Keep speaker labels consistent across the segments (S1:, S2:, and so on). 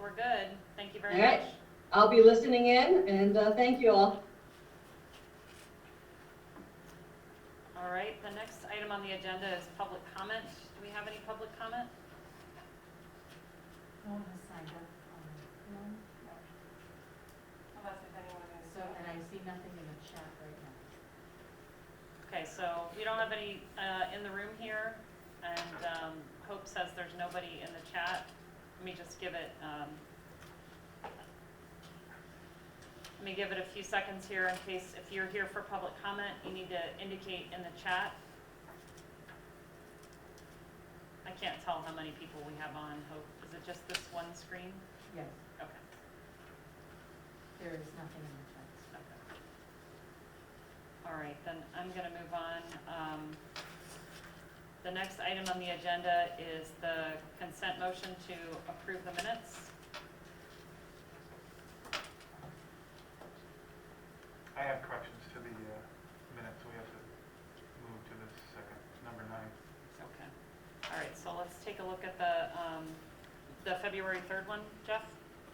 S1: we're good. Thank you very
S2: All right.
S1: much.
S2: I'll be listening in and uh, thank you all.
S1: All right, the next item on the agenda is public comment. Do we have any public comment?
S3: No one has signed up. um,
S4: Unless if anyone is.
S3: So, and I see nothing in the chat right now.
S1: Okay, so we don't have any uh, in the room here, and um, Hope says there's nobody in the chat. Let me just give it, um, let me give it a few seconds here in case, if you're here for public comment, you need to indicate in the chat. I can't tell how many people we have on, Hope. Is it just this one screen?
S3: Yes,
S1: Okay,
S3: there is nothing in the chat.
S1: okay. All right, then I'm going to move on. Um, The next item on the agenda is the consent motion to approve the minutes.
S5: I have corrections to the uh, minutes, we have to move to the second, number nine.
S1: Okay. All right, so let's take a look at the, um, the February 3rd one, Jeff?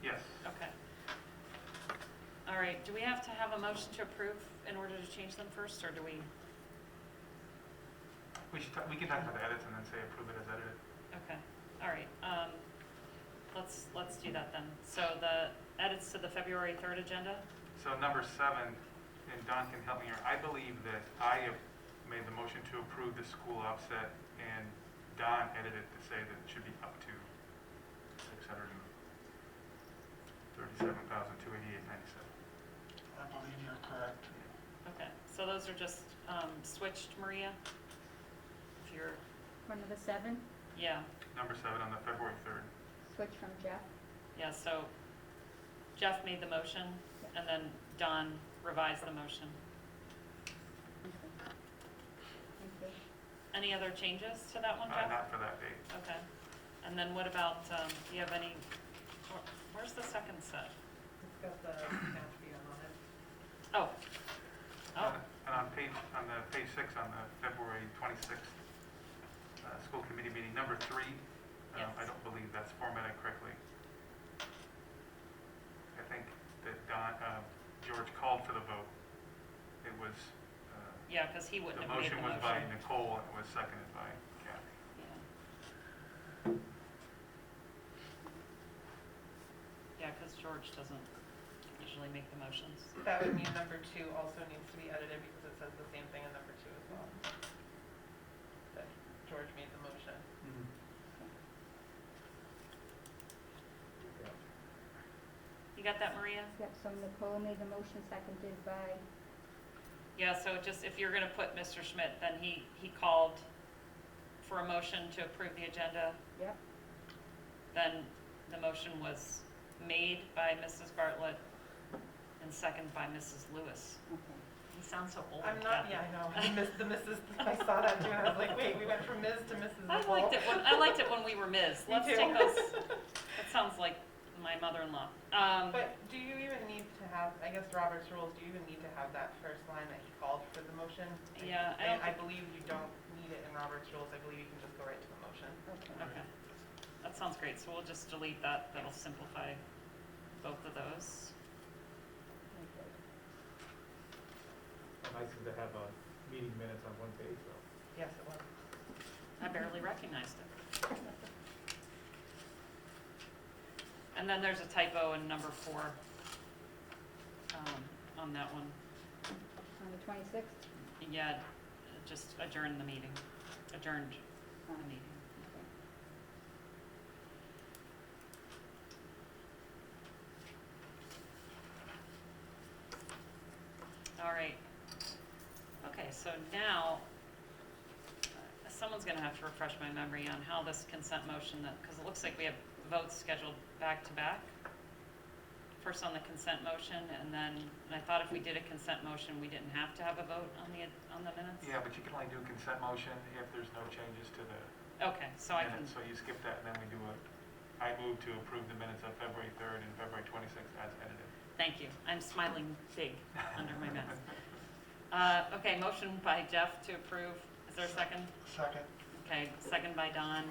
S5: Yes.
S1: Okay. All right, do we have to have a motion to approve in order to change them first, or do we?
S5: We should, talk- we can talk about the edits and then say approve it as edited.
S1: Okay, all right. um, Let's, let's do that then. So the edits to the February 3rd agenda?
S5: So number seven, and Don can help me here, I believe that I have made the motion to approve the school offset, and Don edited to say that it should be up to six hundred and thirty-seven thousand, two eighty-eight ninety-seven.
S6: I believe you're correct.
S1: Okay, so those are just um, switched, Maria? If you're,
S7: For number seven,
S1: yeah,
S5: Number seven on the February third.
S7: switch from Jeff.
S1: yeah, so Jeff made the motion, and then Don revised the motion.
S7: Thank
S1: Any other changes to that one,
S5: Uh,
S1: Jeff?
S5: not for that date.
S1: Okay, and then what about, um, do you have any, where- where's the second set?
S4: It's got the Patreon on it.
S1: Oh, oh,
S5: And on page, on the page six, on the February 26th, uh, school committee meeting, number three, um, I
S1: Yes.
S5: don't believe that's formatted correctly. I think that Don, uh, George called for the vote. It was, uh,
S1: yeah, because he wouldn't
S5: the
S1: have made the
S5: motion
S1: motion.
S5: was by Nicole and it was seconded by Kathy.
S1: Yeah. Yeah, because George doesn't usually make the motions.
S4: That would mean number two also needs to be edited because it says the same thing in number two as well. That George made the motion.
S1: You got that, Maria?
S7: Yep, so Nicole made the motion, seconded by,
S1: Yeah, so just if you're gonna put Mr. Schmidt, then he, he called for a motion to approve the agenda,
S7: yep,
S1: then the motion was made by Mrs. Bartlett and seconded by Mrs. Lewis.
S7: okay.
S1: He sounds so old.
S4: I'm not,
S1: Kathy.
S4: yeah, I know, I missed the Mrs., I saw that too, and I was like, wait, we went from Ms. to Mrs.
S1: I
S4: Nicole.
S1: liked it when, I liked it when we were Ms.
S4: Me
S1: Let's
S4: too.
S1: take those, that sounds like my mother-in-law. Um,
S4: But do you even need to have, I guess Robert's rules, do you even need to have that first line that he called for the motion?
S1: Yeah, I don't
S4: I believe you don't need it in Robert's rules, I believe you can just go right to the motion.
S1: Okay, that sounds great, so we'll just delete that, that'll simplify both of those.
S8: nice to have a meeting minutes on one page, though.
S4: Yes, it was.
S1: I barely recognized it. And then there's a typo in number four, um, on that one.
S7: On the twenty-sixth?
S1: Yeah, just adjourn the meeting, adjourned the meeting. All right. Okay, so now, uh, someone's gonna have to refresh my memory on how this consent motion, that, because it looks like we have votes scheduled back to back. First on the consent motion, and then, and I thought if we did a consent motion, we didn't have to have a vote on the, on the minutes?
S5: Yeah, but you can only do a consent motion if there's no changes to the
S1: Okay, so I can,
S5: minutes. So you skip that and then we do a, I move to approve the minutes of February 3rd and February 26th as edited.
S1: thank you. I'm smiling big under my mask. Uh, okay, motion by Jeff to approve. Is there a second?
S6: Second.
S1: Okay, second by Don.